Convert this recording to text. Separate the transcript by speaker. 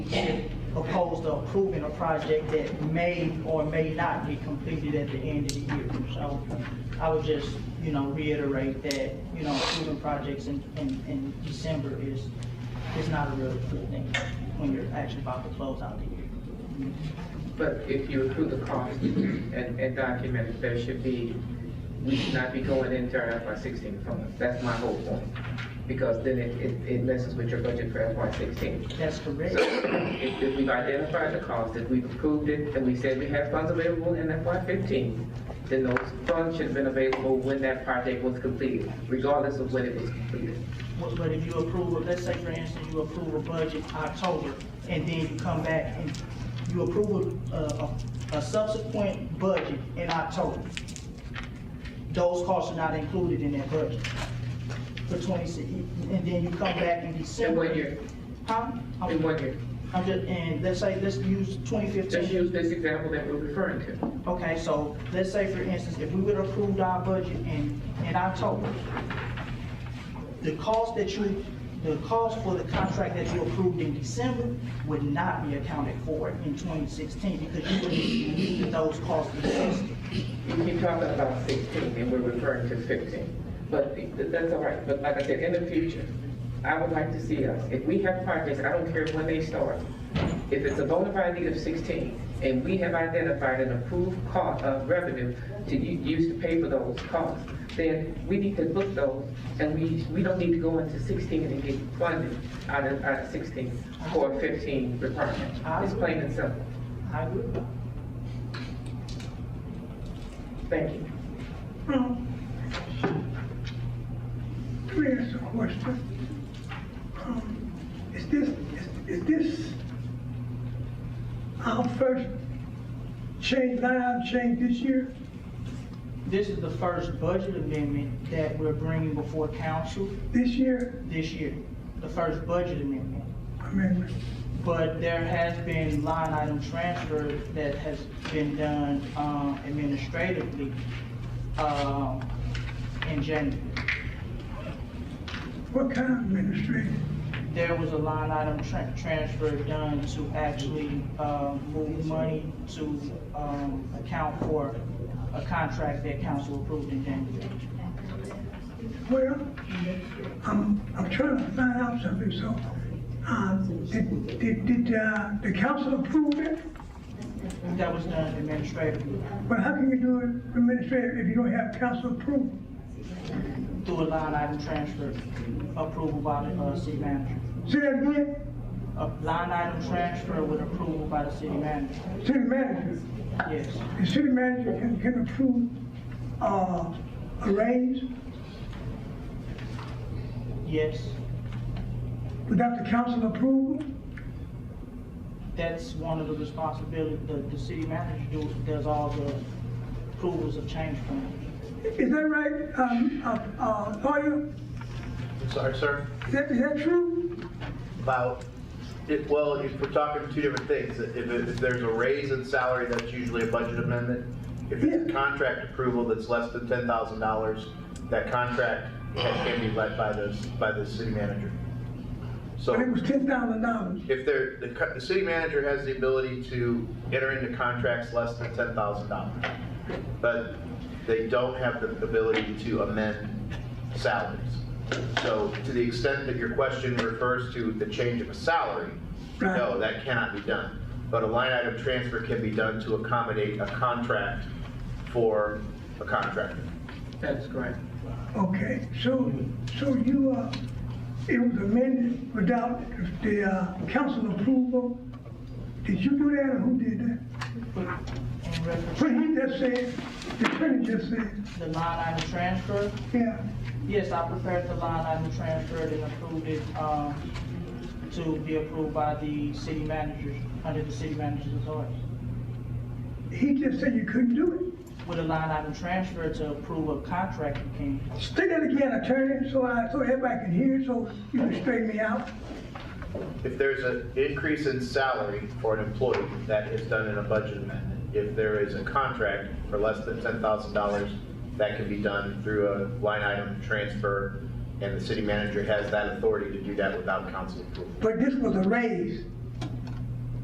Speaker 1: should oppose to approving a project that may or may not be completed at the end of the year. So I would just, you know, reiterate that, you know, approving projects in, in, in December is, is not a real good thing when you're actually about to close out the year.
Speaker 2: But if you accrue the cost and, and document it, there should be, we should not be going into our FY sixteen funds. That's my whole point. Because then it, it, it messes with your budget for FY sixteen.
Speaker 1: That's
Speaker 2: So
Speaker 1: correct.
Speaker 2: if, if we've identified the cost, if we've approved it, and we said we have funds available in FY fifteen, then those funds should have been available when that project was completed, regardless of when it was completed.
Speaker 1: But but if you approve, let's say for instance, you approve a budget October, and then you come back and you approve a, a- a subsequent budget in October. Those costs are not included in that budget for twenty-six, and then you come back in
Speaker 2: In
Speaker 1: December.
Speaker 2: one year,
Speaker 1: Huh? I'm-
Speaker 2: in one year.
Speaker 1: I'm just, and let's say, let's use twenty fifteen.
Speaker 2: Just use this example that we're referring to.
Speaker 1: Okay, so let's say for instance, if we would approve our budget in, in October, the cost that you, the cost for the contract that you approved in December would not be accounted for in twenty sixteen because you would need those costs existed.
Speaker 2: You keep talking about 16, and we're referring to 15. But th- that's all right, but like I said, in the future, I would like to see us, if we have projects, I don't care when they start, if it's a bona fide need of 16, and we have identified an approved cost of revenue to u- use to pay for those costs, then we need to book those, and we, we don't need to go into 16 and get funded out of, out of 16 for 15 requirement. It's plain and simple.
Speaker 1: I agree.
Speaker 2: Thank you.
Speaker 3: Well, Let me ask a question. Um, Is this, is- is this our first change, line item change this year?
Speaker 1: This is the first budget amendment that we're bringing before council
Speaker 3: This year?
Speaker 1: this year, the first budget amendment.
Speaker 3: I mean,
Speaker 1: But there has been line item transfer that has been done um, administratively um, in January.
Speaker 3: what kind of administration?
Speaker 1: There was a line item tran- transfer done to actually um, move money to um, account for a contract that council approved in January.
Speaker 3: Well, I'm, I'm trying to find out something, so, um, did, did, did, uh, the council approve it?
Speaker 1: That was done administratively
Speaker 3: But how can you do it administrative if you don't have council approval?
Speaker 1: through a line item transfer approval by the uh, city manager.
Speaker 3: Say that again?
Speaker 1: A line item transfer with approval by the city manager,
Speaker 3: City manager,
Speaker 1: yes.
Speaker 3: the city manager can, can approve, uh, a raise
Speaker 1: Yes,
Speaker 3: without the council approval?
Speaker 1: that's one of the responsibilities, the, the city manager do- does all the approvals of change plan.
Speaker 3: Is that right, um, uh, uh, lawyer?
Speaker 4: I'm sorry, sir,
Speaker 3: Is that, is that true?
Speaker 4: about, it, well, if we're talking two different things. If, if if there's a raise in salary, that's usually a budget amendment. If it's
Speaker 3: Yeah.
Speaker 4: a contract approval that's less than ten thousand dollars, that contract can can be led by the, by the city manager. So
Speaker 3: But it was ten thousand dollars.
Speaker 4: if there, the, co- the city manager has the ability to enter into contracts less than ten thousand dollars. But they don't have the ability to amend salaries. So to the extent that your question refers to the change of a salary, no,
Speaker 3: Right.
Speaker 4: that cannot be done. But a line item transfer can be done to accommodate a contract for a contractor.
Speaker 2: That's correct.
Speaker 3: Okay, so, so you, uh, it was amended without the, uh, council approval? Did you do that or who did that?
Speaker 1: But in reference,
Speaker 3: What he just said, the attorney just said,
Speaker 1: the line item transfer,
Speaker 3: yeah.
Speaker 1: yes, I prepared the line item transfer and approved it, um, to be approved by the city managers, under the city manager's authority.
Speaker 3: He just said you couldn't do
Speaker 1: With a line item transfer to approve a contract, you can
Speaker 3: it. Say that again, attorney, so I, so everybody can hear, so you can straighten me out.
Speaker 4: If there's an increase in salary for an employee, that is done in a budget amendment. If there is a contract for less than ten thousand dollars, that can be done through a line item transfer, and the city manager has that authority to do that without council approval.
Speaker 3: But this was a raise.